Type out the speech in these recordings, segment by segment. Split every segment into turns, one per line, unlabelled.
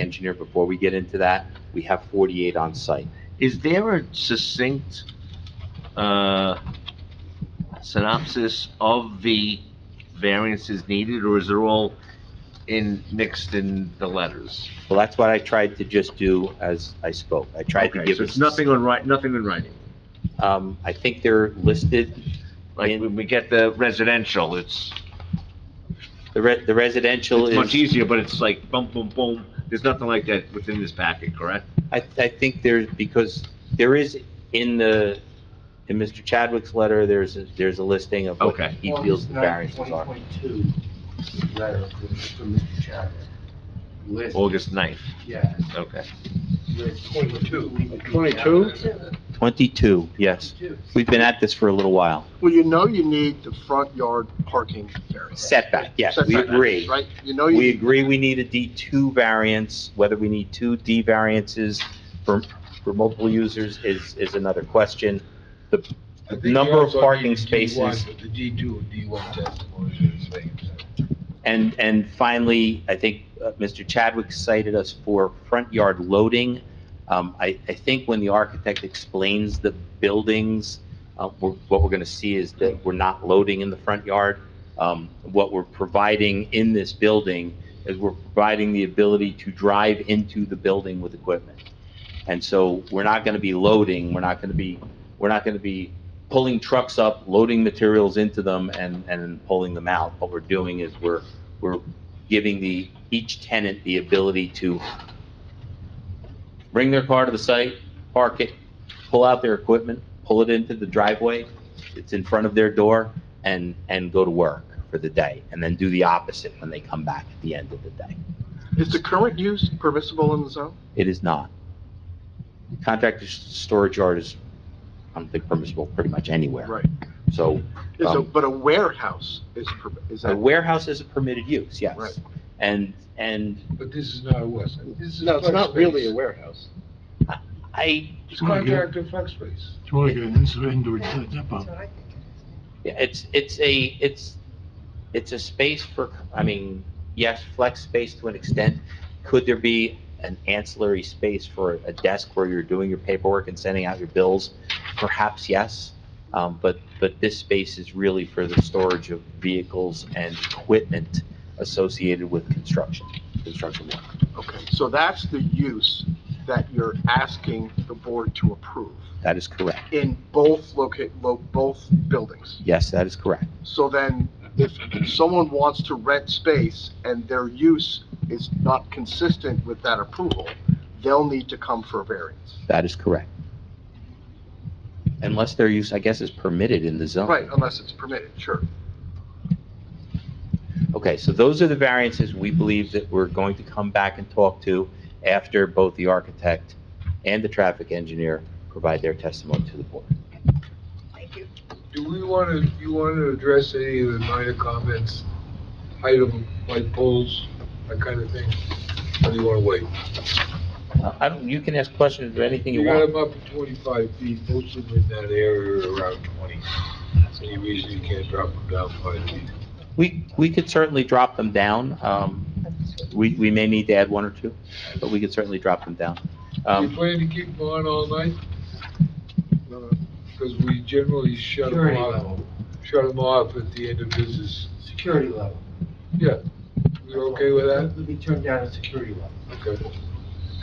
engineer, before we get into that, we have 48 on site.
Is there a succinct uh, synopsis of the variances needed, or is it all in, mixed in the letters?
Well, that's what I tried to just do as I spoke. I tried to
Okay,
give.
So
it-
it's nothing on writing, nothing in writing?
Um, I think they're listed,
Like, when we get the residential, it's
the re- the residential
it's
is.
much easier, but it's like boom, boom, boom. There's nothing like that within this packet, correct?
I, I think there's, because there is in the, in Mr. Chadwick's letter, there's, a- there's a listing of what
Okay.
he feels the variances are.
2022 letter from from Mr. Chadwick. List,
August 9th,
yeah,
okay.
list 22.
22?
Twenty-two, yes. We've been at this for a little while.
Well, you know you need the front yard parking variance.
Setback, yes, we
Setback,
agree.
Right, you know
We
you,
agree we need a D two variance, whether we need two D variances for, for multiple users is, is another question. The
I think
number
you
of
also
parking
need D1,
spaces-
but The D two, D one test. motion space.
And, and finally, I think uh, Mr. Chadwick cited us for front yard loading. Um, I, I think when the architect explains the buildings, uh, we're- what we're going to see is that we're not loading in the front yard. Um, What we're providing in this building is we're providing the ability to drive into the building with equipment. And so we're not going to be loading, we're not going to be, we're not going to be pulling trucks up, loading materials into them and, and pulling them out. What we're doing is we're, we're giving the, each tenant the ability to bring their car to the site, park it, pull out their equipment, pull it into the driveway, it's in front of their door, and, and go to work for the day, and then do the opposite when they come back at the end of the day.
is the current use permissible in the zone?
It is not. Contractor s- storage yard is, I don't think permissible pretty much anywhere.
Right.
So
Is a-
Um,
But a warehouse is, per- is
a
that?
warehouse is a permitted use, yes.
Right.
And, and
But this is not a west, side. this is.
No, it's
flex
not really a
space.
warehouse.
I,
It's contractor flex space.
Do you want to get an indoor- indoor depot?
it's, it's a, it's, it's a space for, I mean, yes, flex space to an extent. Could there be an ancillary space for a desk where you're doing your paperwork and sending out your bills? Perhaps yes, um, but, but this space is really for the storage of vehicles and equipment associated with construction, construction work.
Okay, so that's the use that you're asking the board to approve
That is correct.
in both locate, lo, both buildings.
Yes, that is correct.
So then, if someone wants to rent space and their use is not consistent with that approval, they'll need to come for a variance.
That is correct. Unless their use, I guess, is permitted in the zone.
Right, unless it's permitted, sure.
Okay, so those are the variances we believe that we're going to come back and talk to after both the architect and the traffic engineer provide their testimony to the board.
Do we want to, you want to address any of the minor comments, height of light poles, that kind of thing? Or do you want to wait?
Uh, I don't, you can ask questions or anything you
You
want.
got them up at twenty-five feet, most of them in that area are around twenty. Any reason you can't drop them down five feet?
We, we could certainly drop them down. Um, we, we may need to add one or two, but we could certainly drop them down.
Do you
Um,
plan to keep them on all night? Because we generally shut them
Security
off,
level,
shut them off at the end of business.
security level.
Yeah, you're okay with that?
Let me turn down a security level.
Okay.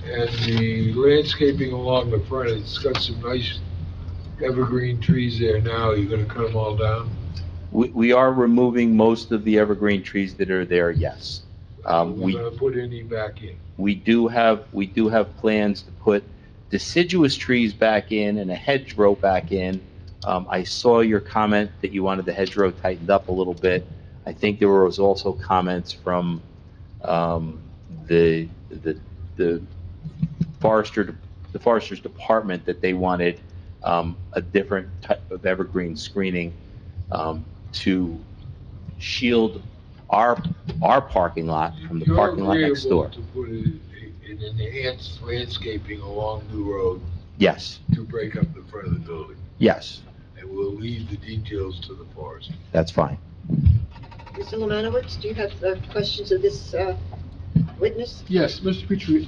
And the landscaping along the front, it's got some nice evergreen trees there now, you're gonna cut them all down?
we, we are removing most of the evergreen trees that are there, yes. Um,
We're
we
gonna put any back in.
We do have, we do have plans to put deciduous trees back in and a hedgerow back in. Um, I saw your comment that you wanted the hedgerow tightened up a little bit. I think there was also comments from, um, the, the, the forester, the forester's department that they wanted, um, a different type of evergreen screening, um, to shield our, our parking lot from the
You're
parking lot next door.
agreeable To put a- an enhanced landscaping along the road
Yes,
to break up the front of the building,
yes,
and we'll leave the details to the forest.
that's fine.
Mr. Lemanowitz, do you have uh, questions of this uh, witness?
Yes, Mr. Petrie,